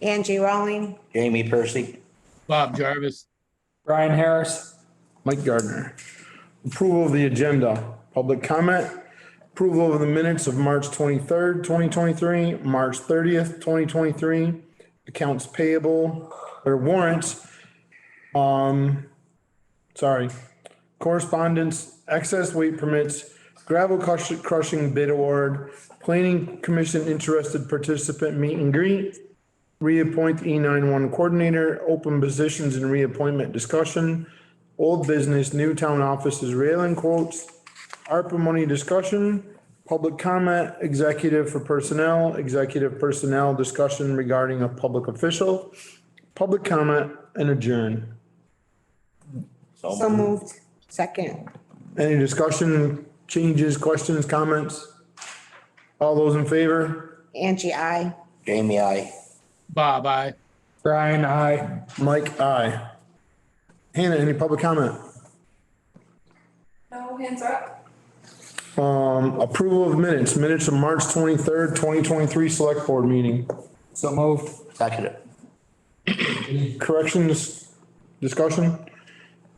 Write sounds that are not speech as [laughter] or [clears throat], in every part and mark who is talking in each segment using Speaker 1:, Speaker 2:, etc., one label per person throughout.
Speaker 1: Angie Rowling,
Speaker 2: Jamie Percy.
Speaker 3: Bob Jarvis,
Speaker 4: Brian Harris.
Speaker 5: Mike Gardner. Approval of the agenda, public comment, approval of the minutes of March twenty-third, twenty twenty-three, March thirtieth, twenty twenty-three, accounts payable or warrants. Um, sorry, correspondence, excess weight permits, gravel crush- crushing bid award, planning commission interested participant meet and greet, reappoint the E nine one coordinator, open positions and reappointment discussion, Old business, new town offices railing quotes, ARPA money discussion, public comment, executive for personnel, executive personnel discussion regarding a public official, public comment and adjourn.
Speaker 1: so moved, second.
Speaker 5: Any discussion, changes, questions, comments? All those in favor?
Speaker 1: Angie, I.
Speaker 2: Jamie, I.
Speaker 3: Bob, I.
Speaker 4: Brian, I.
Speaker 5: Mike, aye. Hannah, any public comment?
Speaker 6: No hands are up.
Speaker 5: Um, approval of minutes, minutes of March twenty-third, twenty twenty-three select board meeting.
Speaker 4: So moved.
Speaker 2: Second it.
Speaker 5: Corrections, discussion?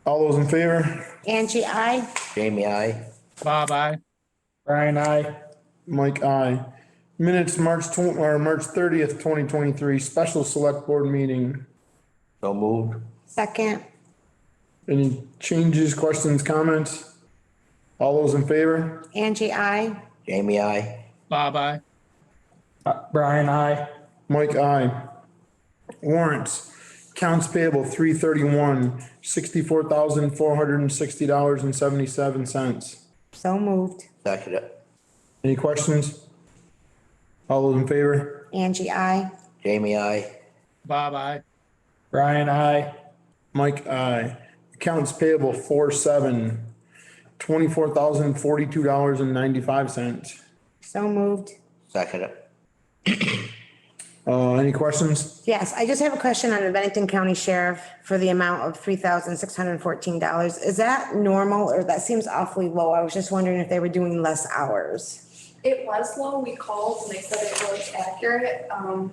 Speaker 5: All those in favor?
Speaker 1: Angie, I.
Speaker 2: Jamie, I.
Speaker 3: Bob, I.
Speaker 4: Brian, I.
Speaker 5: Mike, aye. Minutes, March tw- or March thirtieth, twenty twenty-three, special select board meeting.
Speaker 2: So moved.
Speaker 1: Second,
Speaker 5: Any changes, questions, comments? All those in favor?
Speaker 1: Angie, I.
Speaker 2: Jamie, I.
Speaker 3: Bob, I.
Speaker 4: Uh, Brian, I.
Speaker 5: Mike, aye. Warrants, accounts payable, three thirty-one, sixty-four thousand, four hundred and sixty dollars and seventy-seven cents.
Speaker 1: So moved,
Speaker 2: Second it.
Speaker 5: Any questions? All those in favor?
Speaker 1: Angie, I.
Speaker 2: Jamie, I.
Speaker 3: Bob, I.
Speaker 4: Brian, I.
Speaker 5: Mike, aye. Accounts payable four seven, twenty-four thousand forty-two dollars and ninety-five cents.
Speaker 1: So moved.
Speaker 2: Second it.
Speaker 5: Uh, any questions?
Speaker 1: Yes, I just have a question on the Bennington County Sheriff for the amount of three thousand six hundred and fourteen dollars. Is that normal or that seems awfully low? I was just wondering if they were doing less hours.
Speaker 6: It was low. We called and they said it was accurate. Um,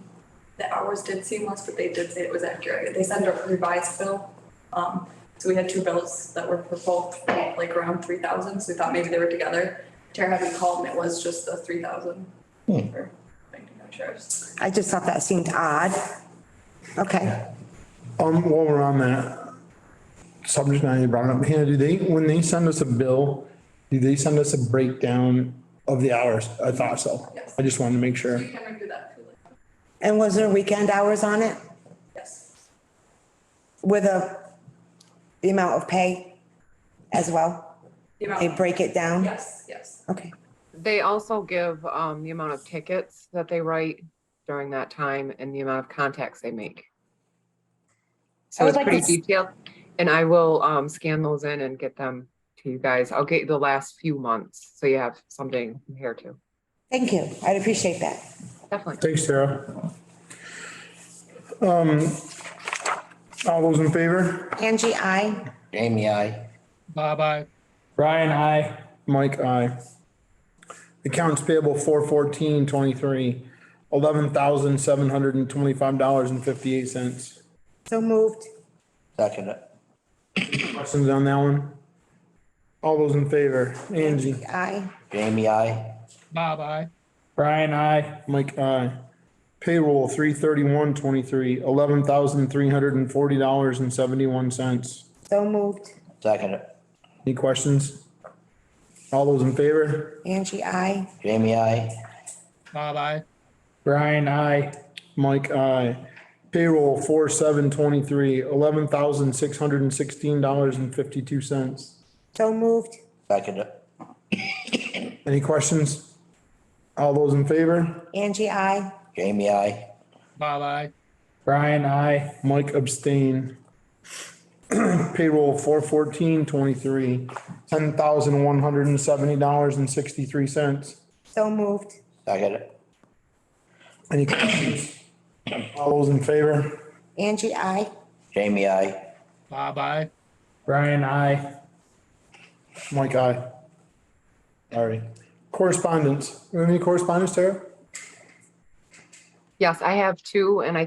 Speaker 6: the hours did seem less, but they did say it was accurate. They sent a revised bill. Um, so we had two bills that were for both like around three thousand, so we thought maybe they were together. Tara had me called and it was just the three thousand. for Bennington County Sheriff's.
Speaker 1: I just thought that seemed odd. Okay,
Speaker 5: Um, while we're on that subject matter you brought up, Hannah, do they, when they send us a bill, do they send us a breakdown of the hours? I thought so.
Speaker 6: Yes.
Speaker 5: I just wanted to make sure.
Speaker 6: We can do that too, like,
Speaker 1: and was there weekend hours on it
Speaker 6: yes.
Speaker 1: with a, the amount of pay as well?
Speaker 6: The
Speaker 1: They
Speaker 6: amount,
Speaker 1: break it down?
Speaker 6: yes, yes.
Speaker 1: Okay,
Speaker 7: They also give um, the amount of tickets that they write during that time and the amount of contacts they make. So
Speaker 1: would
Speaker 7: it's
Speaker 1: like to
Speaker 7: pretty
Speaker 1: s-
Speaker 7: detailed, and I will um, scan those in and get them to you guys. I'll get the last few months, so you have something to compare to.
Speaker 1: thank you. I'd appreciate that.
Speaker 7: Definitely.
Speaker 5: Thanks, Tara. Um, all those in favor?
Speaker 1: Angie, I.
Speaker 2: Jamie, I.
Speaker 3: Bob, I.
Speaker 4: Brian, I.
Speaker 5: Mike, aye. Accounts payable four fourteen twenty-three, eleven thousand seven hundred and twenty-five dollars and fifty-eight cents.
Speaker 1: So moved.
Speaker 2: Second it.
Speaker 5: Questions on that one? All those in favor? Angie,
Speaker 1: I.
Speaker 2: Jamie, I.
Speaker 3: Bob, I.
Speaker 4: Brian, I.
Speaker 5: Mike, aye. Payroll three thirty-one twenty-three, eleven thousand three hundred and forty dollars and seventy-one cents.
Speaker 1: So moved.
Speaker 2: Second it.
Speaker 5: Any questions? All those in favor?
Speaker 1: Angie, I.
Speaker 2: Jamie, I.
Speaker 3: Bob, I.
Speaker 4: Brian, I.
Speaker 5: Mike, aye. Payroll four seven twenty-three, eleven thousand six hundred and sixteen dollars and fifty-two cents.
Speaker 1: So moved.
Speaker 2: Second it.
Speaker 5: Any questions? All those in favor?
Speaker 1: Angie, I.
Speaker 2: Jamie, I.
Speaker 3: Bob, I.
Speaker 4: Brian, I.
Speaker 5: Mike abstain. [clears throat] Payroll four fourteen twenty-three, ten thousand one hundred and seventy dollars and sixty-three cents.
Speaker 1: So moved.
Speaker 2: Second it.
Speaker 5: Any questions? All those in favor?
Speaker 1: Angie, I.
Speaker 2: Jamie, I.
Speaker 3: Bob, I.
Speaker 4: Brian, I.
Speaker 5: Mike, aye. Sorry. Correspondence. We have Any correspondence, Tara?
Speaker 7: Yes, I have two, and I